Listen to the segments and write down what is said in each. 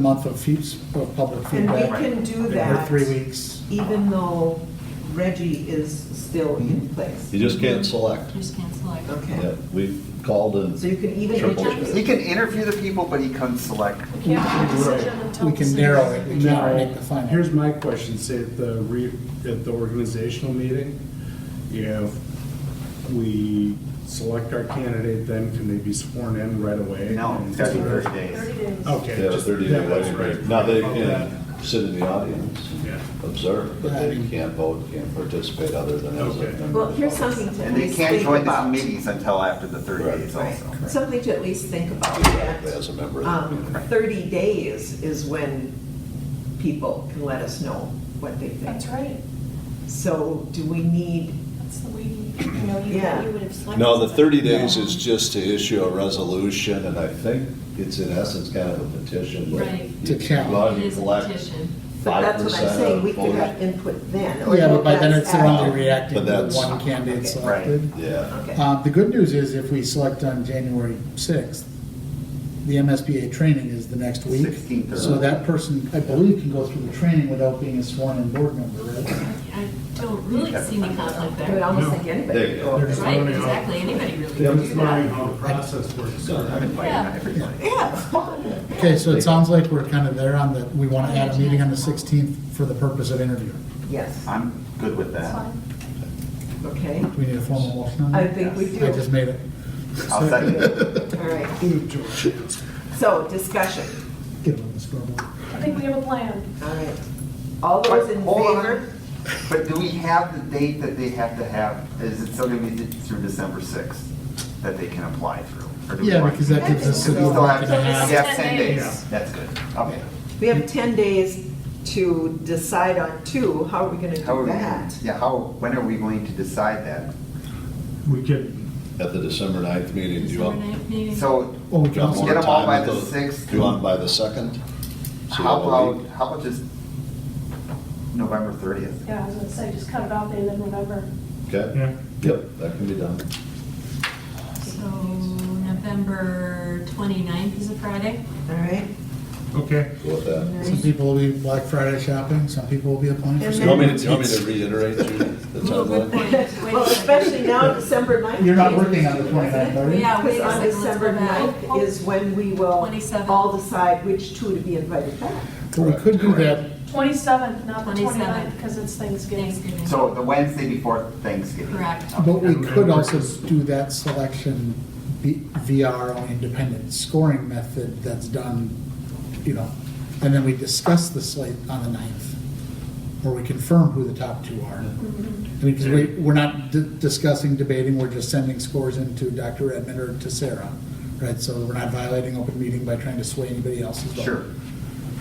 month of fees, of public And we feedback. can do Or that. three weeks. Even though Reggie is still in place. You just can't select. Just cancel it. Okay. Yeah, We've called So and, you can even. Triple He can interview the people, but he couldn't select. We can do it. We can narrow it, we can't make the Now, final. here's my question, say at the re, at the organizational meeting, if we select our candidate, then can they be sworn in right away? No, it's gotta be 30 days. 30 days. yeah, Okay. just- 30 yeah, day that's waiting right. period. Now, they Okay. can sit in the audience, Yeah. observe, but they can't vote, can't participate other than as a Okay. member. Well, here's something to at And they least can't think join the about. meetings until after the 30 Right. days Right. also. Something to at least think about. Exactly, as a member of the Um, community. Thirty days is when people can let us know what they think. That's right. So do we need, That's the way, you you know, you Yeah. you would have selected. No, the 30 something. days is just to issue a resolution, and I think it's in essence kind of a petition. but Right. you To count. log- It is a collect petition. but that's what 5% I'm of saying, we could voters. have input then. or Yeah, but by then that's it's only after. reacting But to the that's- one candidate Okay. Right. selected. Yeah. Okay. Uh, The good news is if we select on January 6th, the MSBA training is the next week. 16th or- So that person, I believe, can go through the training without being a sworn in board member, right? I don't really see any conflict I would there. almost think anybody There could you go. go. There's Right, learning how- exactly, anybody really. Them can is do that. learning how the process works. So, I I'm inviting everybody. Yeah, it's fun. Okay, so it sounds like we're kind of there on the, we want to add a meeting on the 16th for the purpose of interviewing. Yes, I'm good with That's that. fine. okay. Do we need a formal motion on I that? think we do. I just made it. I'll second it. All right, so discussion, Get on the scoreboard. I think we have a plan. all right. All those in Hold on. favor? But do we have the date that they have to have, is it still gonna be through December 6th that they can apply through? Or do we Yeah, want- because that gives us Do a we good still month have, and a half. we have 10 Ten days? days. That's good, okay. We have 10 days to decide on two, how are we going to How are do we, that? yeah, how, when are we going to decide that? We could, At the December 9th meeting, do you December want? do ninth meeting. So Oh, we you can want also, more Get 'em all time by at the 6th? Do you want by the 2nd? So you How have a week. about, how about just November 30th? Yeah, I was gonna say, just cut it off the end of November. Okay, Yeah. yep, that can be done. So November 29th is a Friday. All right, okay. Go with that. some people will be Black Friday shopping, some people will be applying for. And You want me to, school. you want me to reiterate you the Ooh, timeline? good point. Wait a second. well, especially now, December 9th. You're not working on the 29th, are you? Yeah, wait Because a on second, let's December go back. 9th is when we will 27th. all decide which two to be invited back. But we could do that, 27th, not the 27th. 29th, because it's Thanksgiving. Thanksgiving. So the Wednesday before Thanksgiving. Correct. but we could also do that selection be- via our own independent scoring method that's done, you know, and then we discuss the slate on the 9th, where we confirm who the top two are. I mean, because we, we're not di- discussing, debating, we're just sending scores into Dr. Edmund or to Sarah, right? So we're not violating open meeting by trying to sway anybody else's vote. Sure.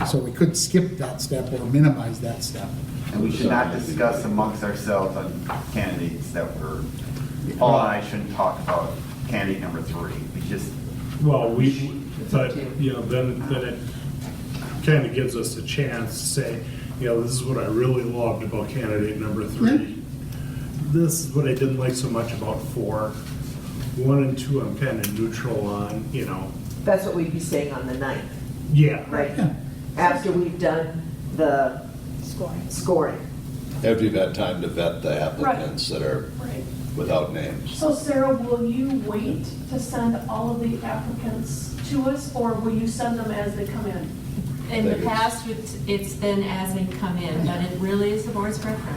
So we could skip that step or minimize that step. And we should not discuss amongst ourselves on candidates that were, Paul and I shouldn't talk about candidate number three. We just, Well, we, but, you know, then, then it kind of gives us a chance to say, you know, this is what I really loved about candidate number three. This is what I didn't like so much about four. One and two, I'm kind of neutral on, you know, That's what we'd be saying on the 9th, yeah. right? Yeah. After we've done the Scoring. scoring. After you've had time to vet the applicants that are Right. without names. So Sarah, will you wait to send all of the applicants to us, or will you send them as they come in? In the Thank you. past, it's- it's been as they come in, but it really is the board's preference.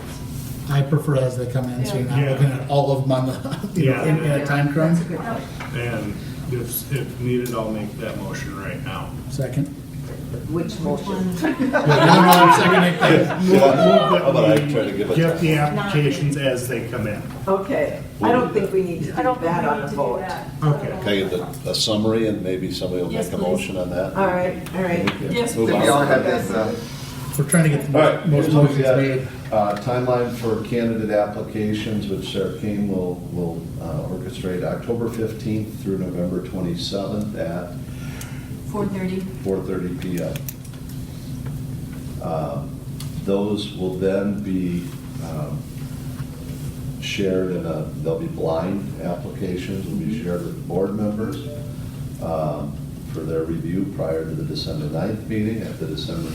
I prefer as they come in, so you're not Yeah. looking at all of them on the, you know, in in a time That's crunch. a good point. And if, if needed, I'll make that motion right now. Second. Which motion? One- Wait, no, no, I'm seconding things. Yeah, How about I try to give it Get the time? applications as they come in. Okay, I don't think we need to do I don't think that we on a need to do vote. that. Okay. Can I get the- a summary and maybe somebody will Yes, make a please. motion on that? All right, all right. Yes, Move we on. please. all have this, uh, We're trying to get the All right, most here's most what we motions got. made. Uh, Timeline for candidate applications, which Sarah Kane will, will uh, orchestrate, October 15th through November 27th at 4:30. 4:30 PM. Um, Those will then be um, shared in a, they'll be blind applications, will be shared with board members. Um, for their review prior to the December 9th meeting. At the December